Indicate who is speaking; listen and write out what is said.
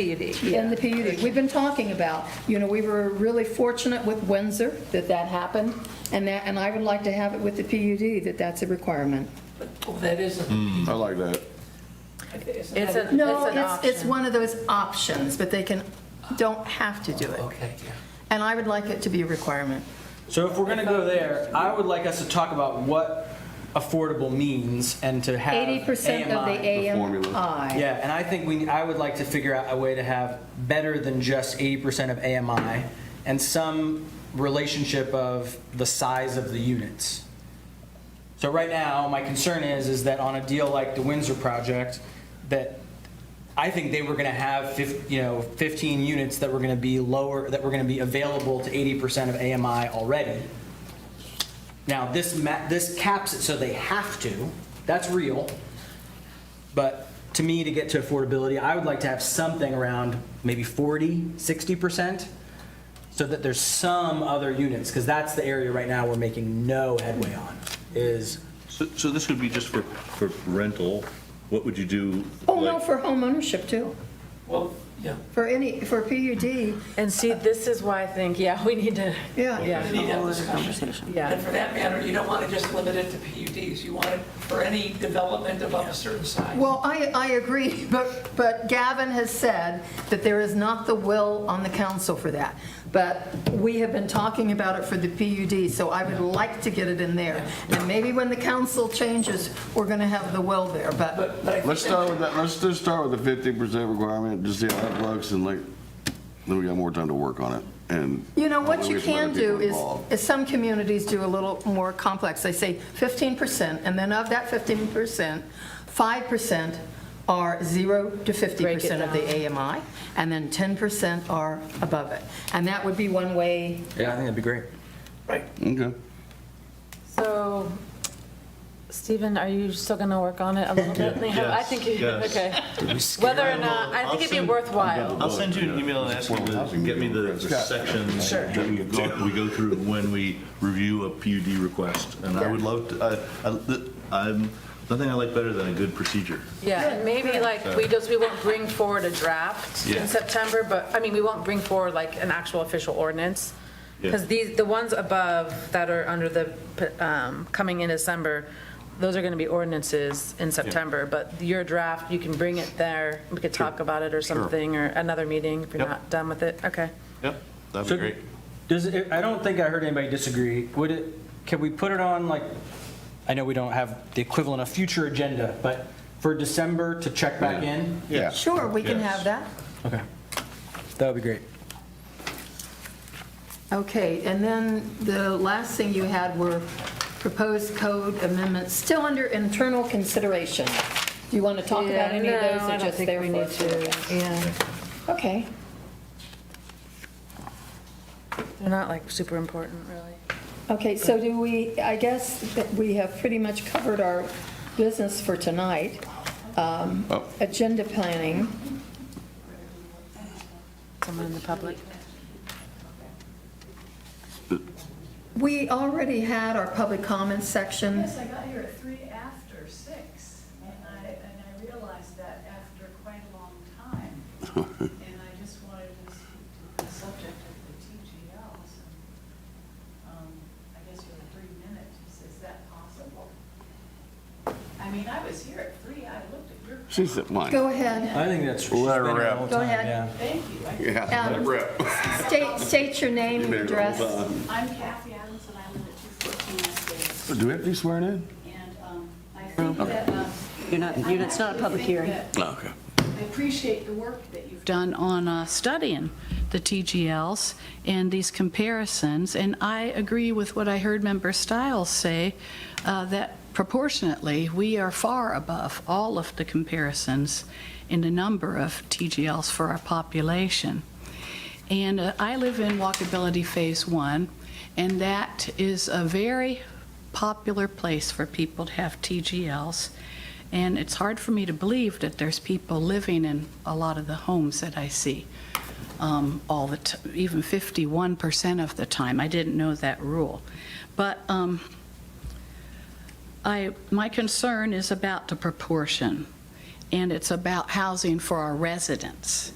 Speaker 1: PUD.
Speaker 2: in the PUD. We've been talking about, you know, we were really fortunate with Windsor that that happened, and that, and I would like to have it with the PUD, that that's a requirement.
Speaker 3: Well, that isn't.
Speaker 4: I like that.
Speaker 1: It's an,
Speaker 2: No,
Speaker 1: it's an
Speaker 2: it's, it's
Speaker 1: option.
Speaker 2: one of those options, but they can, don't have to do it.
Speaker 3: Okay, yeah.
Speaker 2: And I would like it to be a requirement.
Speaker 5: So if we're gonna go there, I would like us to talk about what affordable means and to have
Speaker 2: Eighty percent of the
Speaker 5: AMI.
Speaker 2: AMI.
Speaker 5: Yeah, and I think we, I would like to figure out a way to have better than just eighty percent of AMI and some relationship of the size of the units. So right now, my concern is, is that on a deal like the Windsor project, that I think they were gonna have fif, you know, fifteen units that were gonna be lower, that were gonna be available to eighty percent of AMI already. Now, this ma, this caps it so they have to, that's real. But to me, to get to affordability, I would like to have something around maybe 40, 60%, so that there's some other units, because that's the area right now we're making no headway on, is,
Speaker 6: So, so this would be just for, for rental, what would you do?
Speaker 2: Oh, no,
Speaker 6: like-
Speaker 2: for home ownership too.
Speaker 3: Well, yeah.
Speaker 2: For any, for PUD,
Speaker 1: And see, this is why I think, yeah, we need to,
Speaker 2: yeah.
Speaker 1: yeah,
Speaker 3: We need to have this conversation.
Speaker 1: Yeah.
Speaker 3: And for that matter, you don't want to just limit it to PUDs. You want it for any development above a certain size.
Speaker 2: Well, I, I agree, but, but Gavin has said that there is not the will on the council for that. But we have been talking about it for the PUD, so I would like to get it in there. And maybe when the council changes, we're going to have the will there, but
Speaker 3: But, but I
Speaker 4: Let's
Speaker 3: think
Speaker 4: start with that, let's just start with the fifteen percent requirement, just see how that looks, and like, then we got more time to work on it, and.
Speaker 2: you know, what
Speaker 4: Hopefully
Speaker 2: you
Speaker 4: we some other
Speaker 2: can do
Speaker 4: people
Speaker 2: is,
Speaker 4: involved.
Speaker 2: is some communities do a little more complex. They say 15%, and then of that 15%, 5% are 0 to 50% of the AMI, and then 10% are above it. And that would be one way
Speaker 5: yeah, I think that'd be great.
Speaker 4: Okay.
Speaker 7: So, Stephen, are you still going to work on it a little bit? I
Speaker 8: Yes,
Speaker 7: think, you-
Speaker 8: yes.
Speaker 7: okay. Whether or not, I think it'd be worthwhile.
Speaker 8: I'll send you an email and ask you to get me the the sections that we go- we go through when we review a PUD request. And I would love to, I- I- th- I'm, nothing I like better than a good procedure.
Speaker 7: Yeah, and maybe like, we just, we won't bring forward a draft
Speaker 8: Yeah.
Speaker 7: in September, but, I mean, we won't bring forward like an actual official ordinance. Because
Speaker 8: Yeah.
Speaker 7: these, the ones above that are under the, um, coming in December, those are going to be ordinances in September. But your draft, you can bring it there, we could talk about it or something, or another meeting if you're
Speaker 8: Yep.
Speaker 7: not done with it, okay?
Speaker 8: Yep, that'd
Speaker 5: So Does, it- I don't think I heard anybody disagree. Would it, can we put it on like, I know we don't have the equivalent of future agenda, but for December to check back in?
Speaker 8: Yeah.
Speaker 2: Sure, we can have that.
Speaker 5: Okay. That would be great.
Speaker 2: Okay, and then the last thing you had were proposed code amendments, still under internal consideration. Do you want to talk about any of those or just there for us to look at?
Speaker 7: Yeah,
Speaker 2: Okay.
Speaker 7: they're not like super important, really.
Speaker 2: Okay, so do we, I guess that we have pretty much covered our business for tonight. Um,
Speaker 4: Oh.
Speaker 2: Agenda planning,
Speaker 7: Someone in the public.
Speaker 2: we already had our public comments section.
Speaker 9: Yes, I got here at three after six, and I, and I realized that after quite a long time. And I just wanted to speak to the subject of the TGLs. and, um, I guess you have three minutes, is that possible? I mean, I was here at three, I looked at your,
Speaker 4: She said mine.
Speaker 2: Go ahead,
Speaker 5: I think that's.
Speaker 4: Let her
Speaker 5: she's been here the whole
Speaker 4: rip.
Speaker 2: Go
Speaker 5: time,
Speaker 2: ahead.
Speaker 5: yeah.
Speaker 9: thank you. I-
Speaker 4: Yeah,
Speaker 2: Um,
Speaker 4: rip.
Speaker 2: state, state your name and
Speaker 4: Been here the
Speaker 2: address.
Speaker 4: whole time.
Speaker 9: I'm Kathy Adams, and I live at two fourteen West
Speaker 4: Do we have to be sworn in?
Speaker 9: Bay. And, um, I think that, um. You're not, you're, it's not a public hearing.
Speaker 4: Okay.
Speaker 9: I appreciate the work that you've done on uh, studying the TGLs and these comparisons, and I agree with what I heard Member Stiles say, uh, that proportionately, we are far above all of the comparisons in the number of TGLs for our population. And uh, I live in walkability Phase 1, and that is a very popular place for people to have TGLs. And it's hard for me to believe that there's people living in a lot of the homes that I see um, all the, t- even 51% of the time. I didn't know that rule. But um, I, my concern is about the proportion, and it's about housing for our residents.